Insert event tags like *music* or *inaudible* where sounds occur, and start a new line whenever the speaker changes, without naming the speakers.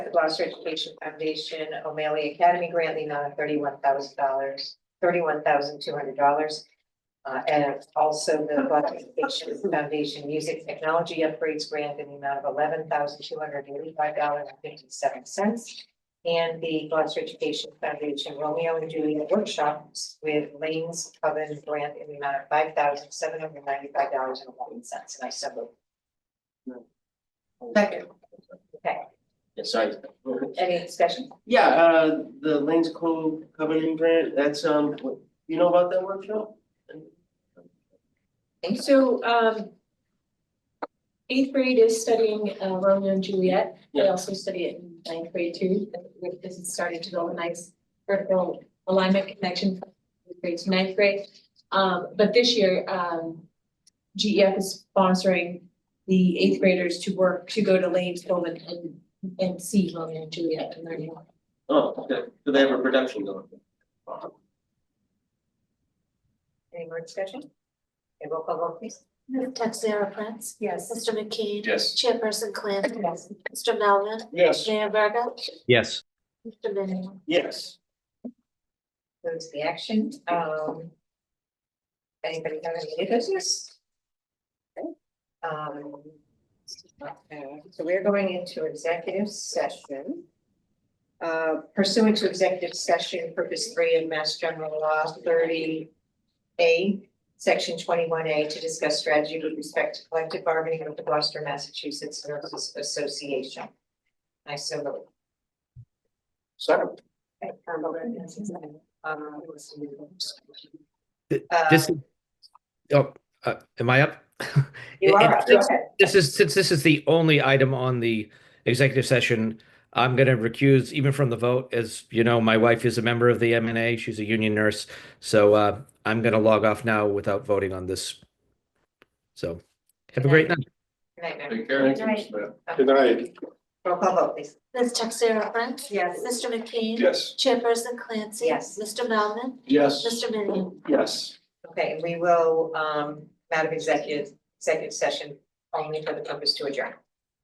the Gloucester Education Foundation O'Malley Academy Grant, the amount of thirty-one thousand dollars, thirty-one thousand two hundred dollars. Uh, and also the Gloucester Education Foundation Music Technology Upgrades Grant in the amount of eleven thousand two hundred eighty-five dollars and fifty-seven cents. And the Gloucester Education Foundation Romeo and Juliet Workshops with Lanes Coven Grant in the amount of five thousand seven hundred ninety-five dollars and eleven cents, and I so moved.
Second.
Yes, I,
Any discussion?
Yeah, uh, the Lanes Cove Covenant Grant, that's, um, what- you know about that workshop?
So um. Eighth grade is studying uh, Romeo and Juliet. They
Yeah.
also study it in ninth grade too. With this is starting to build a nice vertical alignment connection from eighth grade to ninth grade. Um, but this year, um, GEF is sponsoring the eighth graders to work, to go to Lane's Cove and and and see Romeo and Juliet and learn more.
Oh, okay, so they have a production going.
Any more discussion? Okay, roll call vote please.
Madam Texera Prince.
Yes.
Mr. McKee.
yes.
Chairperson Clancy.
Yes.
Mr. Melvin.
Yes.
Mayor Verga.
yes,
Mr. Minio.
Yes.
Moves the action, um. Anybody have any new business? Okay, Um. So we're going into executive session. Uh, pursuant to executive session, purpose three of Mass General Law thirty. A, section twenty-one A, to discuss strategy with respect to collective bargaining with the Gloucester, Massachusetts Nurses Association. I so move. um,
Sorry.
You
Th-
Uh,
this, is- oh, uh, am
*laughs*
I up? It-
are
it-
up, go ahead.
This is, since this is the only item on the executive session, I'm gonna recuse even from the vote. As you know, my wife is a member of the MNA, she's a union nurse. So uh, I'm gonna log off now without voting on this. So have a great night.
Good night, ma'am.
Take care.
Right.
Good night.
Roll call vote, please.
Ms. Texera Prince.
Yes.
Mr. McKee.
Yes.
Chairperson Clancy.
Yes.
Mr. Melvin.
Yes.
Mr. Minio.
Yes.
Okay, we will, um, out of executive, executive session only for the purpose to adjourn.